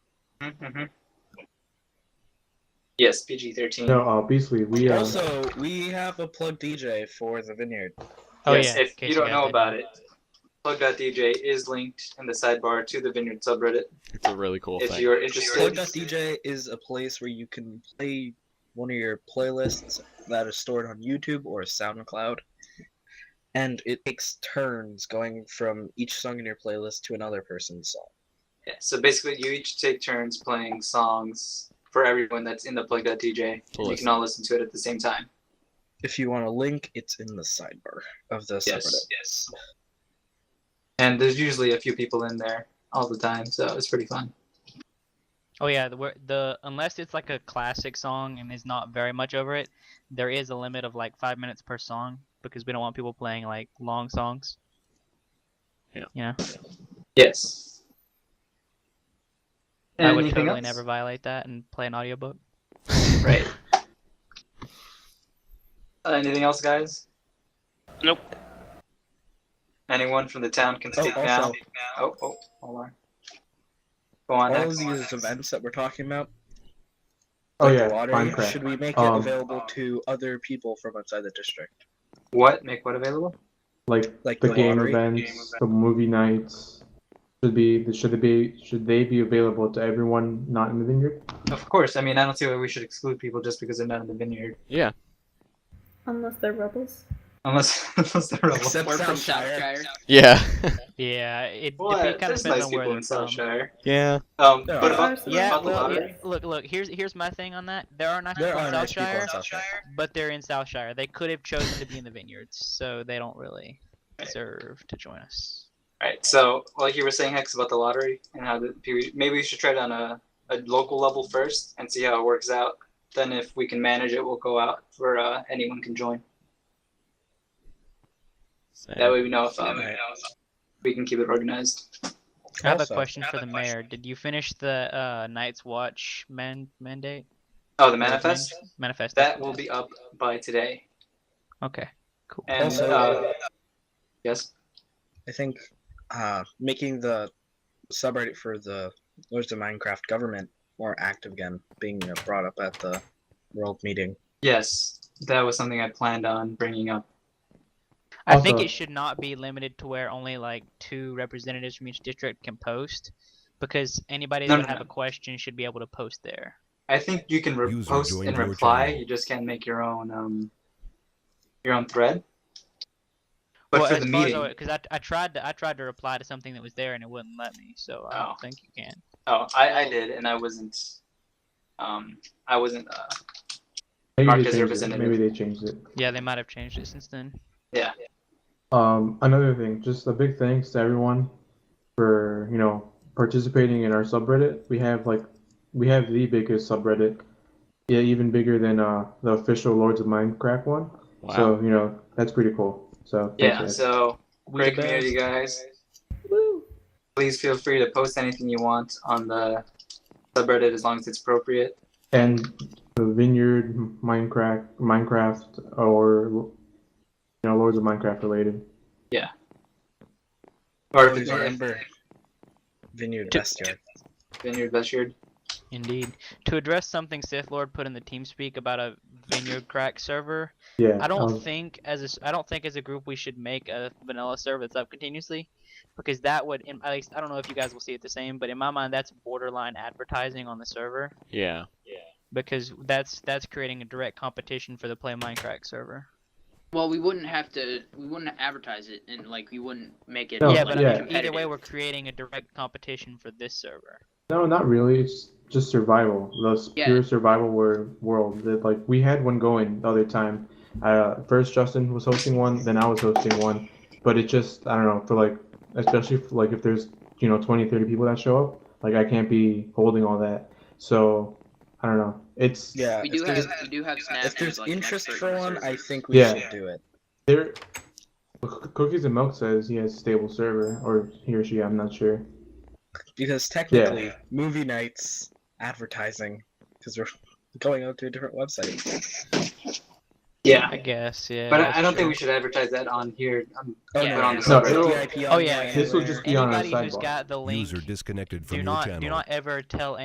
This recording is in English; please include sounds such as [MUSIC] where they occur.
Mm-hmm. Yes, PG thirteen. No, uh, Beasley, we uh, [LAUGHS] Also, we have a plug DJ for the Vineyard. Oh yes, yeah. in if case you don't guys know didn't about it, plug.dj is linked in the sidebar to the Vineyard subreddit. It's a really cool if thing. you are interested, Plug.dj is a place where you can play one of your playlists that is stored on YouTube or SoundCloud. And it takes turns going from each song in your playlist to another person's song. Yeah, so basically, you each take turns playing songs for everyone that's in the plug.dj. To You listen. can all listen to it at the same time. If you want a link, it's in the sidebar of the subreddit. yes. And there's usually a few people in there all the time, so it's pretty fun. Oh yeah, the, where- the unless it's like a classic song and there's not very much over it, there is a limit of like five minutes per song because we don't want people playing like long songs. Yeah. You know, Yes. I would Anything totally else? never violate that and play an audiobook. Right. Uh, anything else, guys? Nope. Anyone from the town can Oh, speak also- now. Oh, oh, hold on. Go on. All next, of go on these next. events that we're talking about, oh like yeah, the lottery, Minecraft. should we make it Um, available to other people from outside the district? What? Make what available? like, like the, the game lottery? events, the movie nights should be should they be should they be available to everyone not in the vineyard? Of course. I mean, I don't see why we should exclude people just because they're not in the vineyard. Yeah. Unless they're rebels. Unless, [LAUGHS] unless they're rebels. Except We're from Southshire. Southshire. Yeah. Yeah, it, What? it kind There's of depends nice on where people they're in from. Southshire. yeah. Um, There but are. about, Personally, Yeah, about the I well, love lottery, yeah, look, look. Here's here's my thing on that. There are nice There people are in nice people Southshire, in Southshire. but they're in Southshire. They could have chosen to be in the vineyards, so they don't really Right. deserve to join us. Right. So, like you were saying, Hex, about the lottery and how the maybe we should try it on a, a local level first and see how it works out. Then, if we can manage it, we'll go out for uh, anyone can join. That way, we know if um, Alright. we can keep it organized. I have a Also- question for the mayor. Did you finish the uh, Night's Watch man- mandate? Oh, the manifest Manifest. that will be up by today. Okay. Cool. And Also, uh, yes, I think uh, making the subreddit for the Lords of Minecraft government more active again, being uh, brought up at the world meeting. yes, that was something I planned on bringing up. I think Also- it should not be limited to where only like two representatives from each district can post, because anybody No, that no, have no. a question should be able to post there. I think you can re- User post joined and your reply. channel. You just can't make your own um, your own thread. But for the meeting, because I, I tried to I tried to reply to something that was there and it wouldn't let me, so I Oh. don't think you can. Oh, I, I did, and I wasn't. Um, I wasn't. Uh, Maybe Mark they is changed it. representative. Maybe they changed it. Yeah, they might have changed it since then. yeah. Um, another thing, just a big thanks to everyone for you know participating in our subreddit. We have like we have the biggest subreddit, yeah, even bigger than uh the official Lords of Minecraft one. Wow. So you know that's pretty cool. So thanks, Yeah. guys. So We great community, guys. Woo! Please feel free to post anything you want on the subreddit as long as it's appropriate. and the vineyard minecraft minecraft or you know lords of minecraft related Or if Lords it's of or if Ember Vineyard To- Vestiaire. Vineyard Vestyard. Indeed. To address something Sith Lord put in the TeamSpeak about a Vineyard Crack server, yeah I don't um, think as a s- I don't think as a group we should make a vanilla server that's up continuously, because that would in, at least I don't know if you guys will see it the same, but in my mind that's borderline advertising on the server Yeah. because that's that's creating a direct competition for the Play Minecraft server. Well, we wouldn't have to. We wouldn't advertise it, and like we wouldn't make it. No, yeah, but yeah. I mean, either way we're creating a direct competition for this server. no not really it's just survival the s- Yeah. pure survival wor- world that like we had one going the other time uh first justin was hosting one then i was hosting one but it just i don't know for like especially for, like if there's you know 20 30 people that show up like i can't be holding all that so i don't know it's Yeah, We if do there's, have. We do have Snap. if there's as, like, an interest expert for one, user. I think we Yeah. should do it. There, C- cookies and milk says he has stable server, or he or she. I'm not sure. Because technically, movie nights, advertising, because we're [LAUGHS] going out to a different website. Yeah. I guess, yeah. But that's I, I don't true. think we should advertise that on here. Um, Oh, Yeah. no, on no, the no, subreddit. it's No, VIP Oh, yeah. online This will where- just be on our anybody who's sidebar. got the link User disconnected do from your not channel. do not ever tell